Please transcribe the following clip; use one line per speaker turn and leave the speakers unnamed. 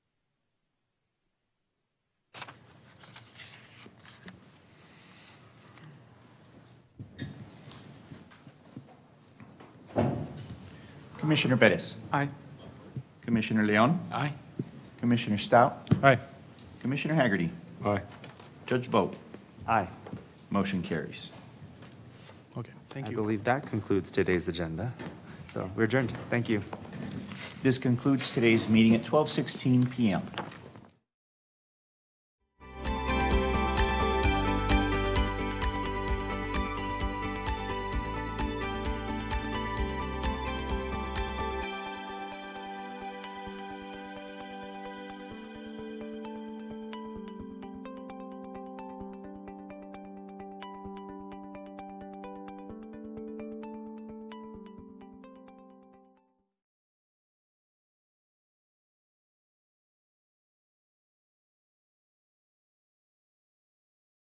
Commissioner Bettis.
Aye.
Commissioner Leon.
Aye.
Commissioner Stout.
Aye.
Commissioner Haggerty.
Aye.
Judge Vogt.
Aye.
Motion carries.
Okay, thank
I
you.
believe that concludes today's agenda. So we're adjourned. Thank you.
This concludes today's meeting at 12:16 PM.